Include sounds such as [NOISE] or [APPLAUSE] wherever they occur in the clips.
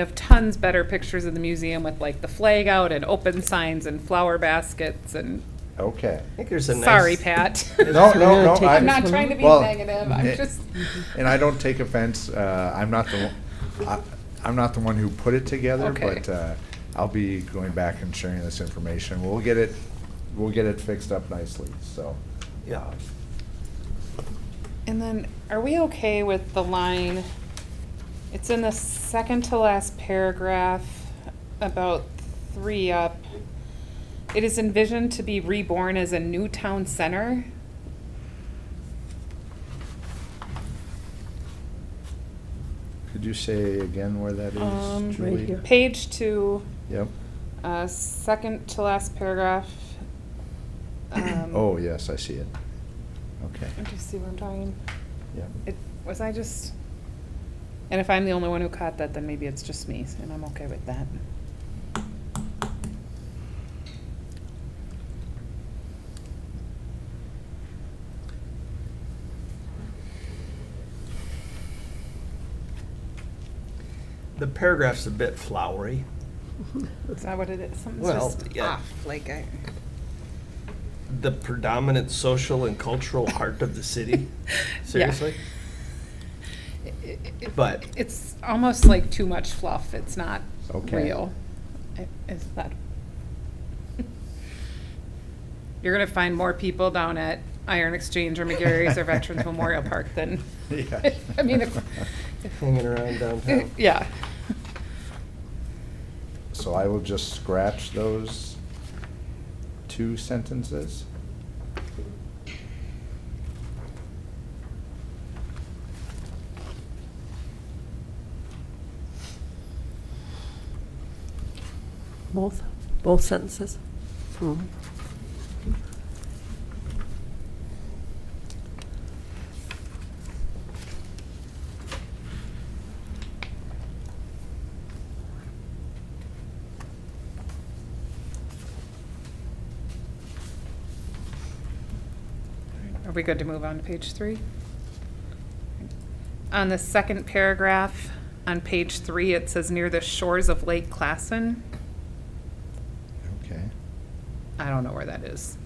We have tons better pictures of the museum with like the flag out and open signs and flower baskets and, Okay. I think there's a nice. sorry, [LAUGHS] Pat. No, no, no. I'm not trying to be well, eh. negative, I'm it- just, And I don't take offense, uh, I'm not the, one- I- I'm not the one who put it together, Okay. but uh, I'll be going back and sharing this information. We'll get it, we'll get it fixed up nicely, so. Yeah. and then, are we okay with the line? It's in the second to last paragraph, about three up. It is envisioned to be reborn as a new town center. Could you say again where that Um, is, Julie? Page two, Yep. uh, second to last paragraph. Um, Oh, yes, I see it. Okay, Do you see where I'm talking? yep. It, was I just, and if I'm the only one who caught that, then maybe it's just me, and I'm okay with that. The paragraph's a bit flowery. Is that what it is? Something's Well, just yeah. off, like I. The predominant social and cultural [LAUGHS] heart of the city. Seriously? It- it- it- But- It's almost like too much fluff, it's not Okay. real. It- It's not. You're gonna find more people down at Iron Exchange or McGarry's or Veterans Memorial Park than, [LAUGHS] Yeah. I mean, if- Hanging around downtown. [LAUGHS] yeah. So I will just scratch those two sentences. Both, both sentences? Hmm. Are we good to move on to page three? On the second paragraph, on page three, it says near the shores of Lake Classen. Okay. I don't know where that is.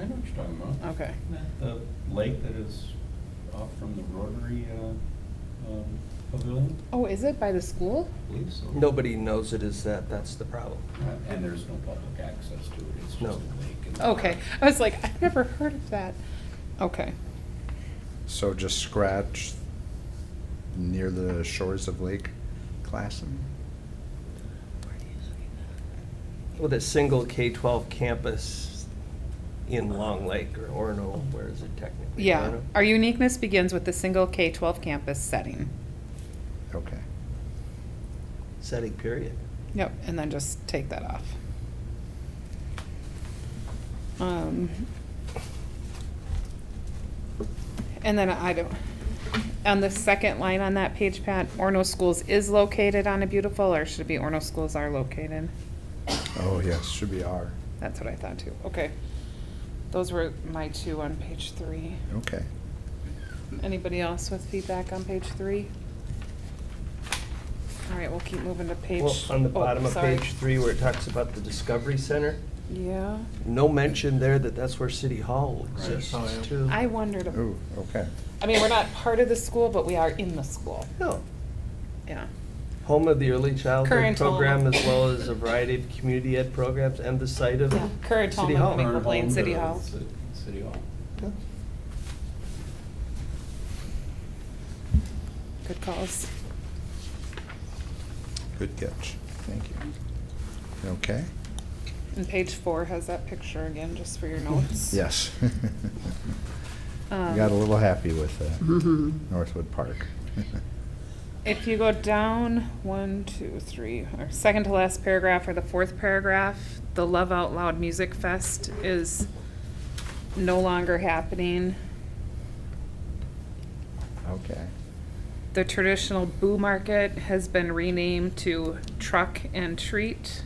I know what you're talking about. Okay. Isn't that the lake that is off from the Rotary uh, um, Pavilion? Oh, is it by the school? I believe so. Nobody knows it is that, that's the problem. Uh, And there's no public access to it, it's just a No. lake. and- Okay, I was like, I've never heard of that. Okay, So just scratch near the shores of Lake Classen? With a single K-12 campus in Long Lake or Orono, where is it technically? yeah. Orono? Our uniqueness begins with the single K-12 campus setting. Okay. Setting period. Yep, and then just take that off. Um, And then I don't, on the second line on that page, Pat, Orno Schools is located on a beautiful, or should it be Orno Schools are located? Oh, yes, should be R. That's what I thought too. Okay. Those were my two on page three. Okay. Anybody else with feedback on page three? All right, we'll keep moving to page. Well, on the oh, bottom of sorry. page three where it talks about the Discovery Center, Yeah, no mention there that that's where City Hall Right. exists Oh, yeah. too. I wondered, ab- Ooh, okay. I mean, we're not part of the school, but we are in the school. No. Yeah. Home of the early childhood Current home. program as well as a variety of community ed programs and the site of Yeah, current home City of Hall. Lincoln. Or Plain home City to Hall. Ci- City Hall. Good calls. Good catch. Thank you. Okay? And page four has that picture again, just for your notes. Yes. [LAUGHS] Um, Got a little happy with uh, Mhm. Northwood Park. [LAUGHS] If you go down one, two, three, or second to last paragraph or the fourth paragraph, the Love Out Loud Music Fest is no longer happening. Okay. The traditional Boo Market has been renamed to Truck and Treat.